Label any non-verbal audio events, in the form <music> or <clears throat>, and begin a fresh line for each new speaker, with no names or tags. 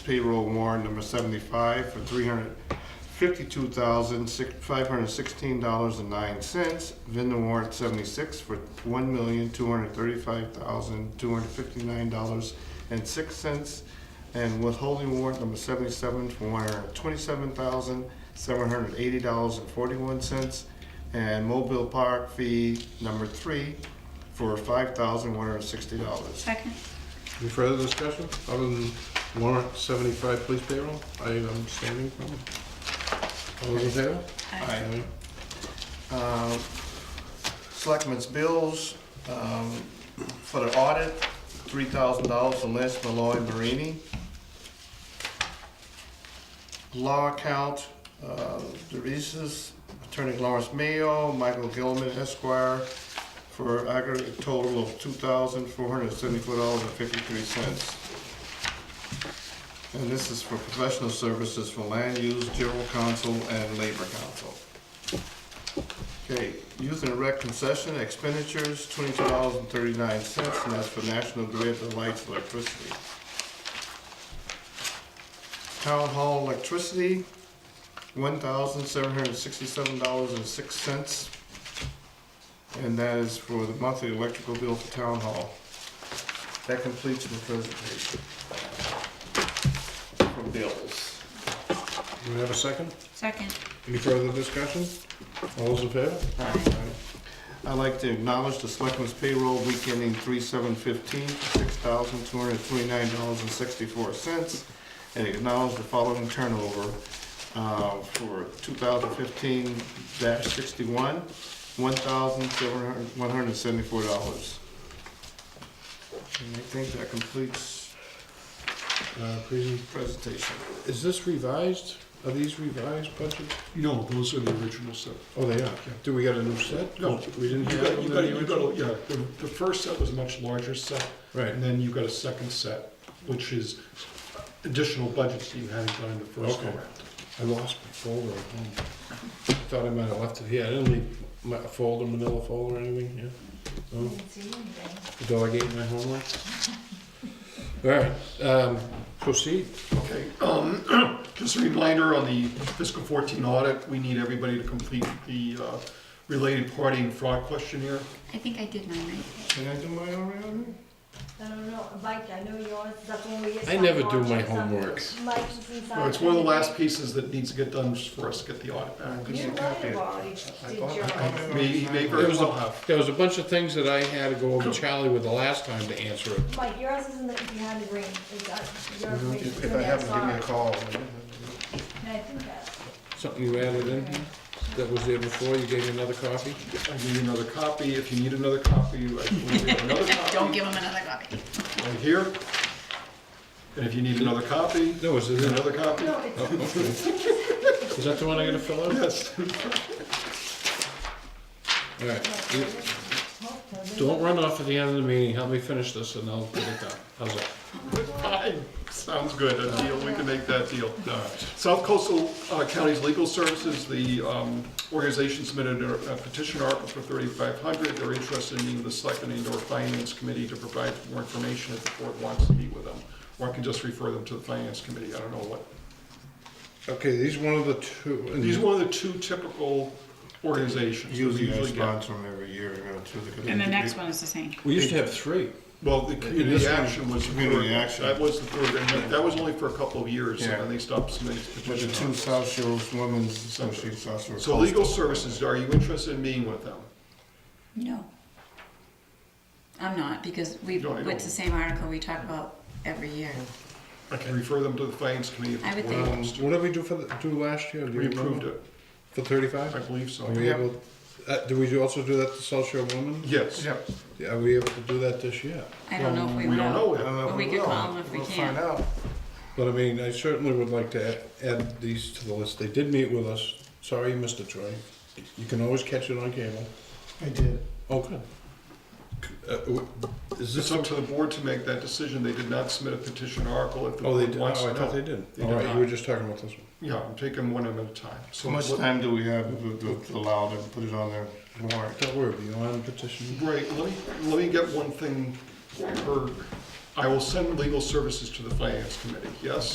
payroll warrant number seventy-five for three hundred fifty-two thousand, six, five hundred sixteen dollars and nine cents. Vendor warrant seventy-six for one million, two hundred thirty-five thousand, two hundred fifty-nine dollars and six cents. And withholding warrant number seventy-seven for one hundred twenty-seven thousand, seven hundred eighty dollars and forty-one cents. And mobile park fee number three for five thousand, one hundred sixty dollars.
Second.
Any further discussion other than warrant seventy-five police payroll? I am standing from it. All those in favor?
Aye.
Aye.
Um, Selectmen's bills, um, for the audit, three thousand dollars from Les Malloy Marini. Law account, uh, Derises, Attorney Lawrence Mayo, Michael Gilman Esquire, for aggregate total of two thousand four hundred seventy-four dollars and fifty-three cents. And this is for professional services for land use, general counsel, and labor counsel. Okay, youth and rec concession expenditures, twenty-two dollars and thirty-nine cents, and that's for National Grid, the lights, electricity. Town hall electricity, one thousand seven hundred and sixty-seven dollars and six cents. And that is for the monthly electrical bill for town hall. That completes my presentation. For bills.
Do we have a second?
Second.
Any further discussion? All those in favor?
I'd like to acknowledge the selectmen's payroll week ending three seven fifteen, six thousand two hundred twenty-nine dollars and sixty-four cents. And acknowledge the following turnover, uh, for two thousand fifteen sixty-one, one thousand seven hundred, one hundred and seventy-four dollars. And I think that completes
Uh, present-
presentation.
Is this revised? Are these revised budgets?
No, those are the original set.
Oh, they are. Do we got a new set?
No.
We didn't
You
do
got,
that
you
in
got,
the
you got,
original?
yeah, the, the first set was a much larger set,
Right.
and then you got a second set, which is additional budgets that you hadn't done in the first
Okay.
go round.
I lost my folder at home. I Thought I might have left it here. I didn't leave my folder, manila folder or anything here. No? Delegate my homework. All right, um, proceed.
Okay, um, <clears throat> just a reminder on the fiscal 14 audit, we need everybody to complete the uh, related party and fraud questionnaire.
I think I did mine right.
Can I do mine already?
I don't know, Mike, I know yours, that's when we.
I never do my
Mike's on-
homework.
Mike's inside.
Well, It's one of the last pieces that needs to get done just for us to get the audit back.
You might have already did your.
I-
Maybe, maybe
There was,
we'll
a,
have.
there was a bunch of things that I had to go over Charlie with the last time to answer it.
Mike, yours isn't that you had the green, it's, uh, yours. is-
If I haven't, give me a call.
And I think that,
Something you added in here that was there before, you gave me another copy?
I give you another copy, if you need another copy, I can give you another copy.
Don't give him another copy.
right here. And if you need another copy,
No, is it
there's
in?
another copy.
no, it's,
Is that the one I gotta fill out?
Yes.
All right, you- don't run off at the end of the meeting, help me finish this and I'll get it done. How's that?
Fine. Sounds good, a deal, we can make that deal. South Coastal uh, Counties Legal Services, the um, organization submitted a a petition article for 3,500. They're interested in meeting with the Selectmen and/or Finance Committee to provide more information if the board wants to meet with them. Or I can just refer them to the Finance Committee, I don't know what.
Okay, these one of the two. and-
These are one of the two typical organizations. that we
Usually I
get.
sponsor them every year, you know, to the.
And the next one is the same.
We used to have three.
Well, the community
this one-
action was. the
Community
third.
action.
That was the third, and that- that was only for a couple of years, and
Yeah.
then they stopped submitting
With the two
petitions.
South Shores Women's Association, South Shore
So legal services, are you interested in meeting with them?
No. I'm not, because we,
No, I don't.
it's the same article we talk about every year.
I can refer them to the finance committee
I
if
would
the
think.
board
Um,
wants to.
what did we do for the, do last year? Do you
We approved
remember?
it,
For
I
thirty-five?
believe so.
Are we able, uh, do we do also do that to South Shore Women?
Yes.
Yeah.
Yeah, Are we able to do that this year?
I don't know if we
We don't know
will.
I don't
yet.
know if
We could
will.
call them if we
We'll
can.
find out.
But I mean, I certainly would like to add- add these to the list. They did meet with us. Sorry you missed it, Troy. You can always catch it on cable.
I did.
Oh, good. Uh, w- Is
It's
this,
up
oh,
to the board to make that decision. They did not submit a petition article if the
they
board
did, oh, I
wants to.
thought they
know.
did.
They
All
did
right,
not.
you were just talking about this one.
Yeah, I'm taking one of them at a time.
So much
let-
time do we have to- to to allow them to put it on their warrant?
Don't worry, you want a petition?
Right, let me, let me get one thing, or I will send legal services to the finance committee, yes?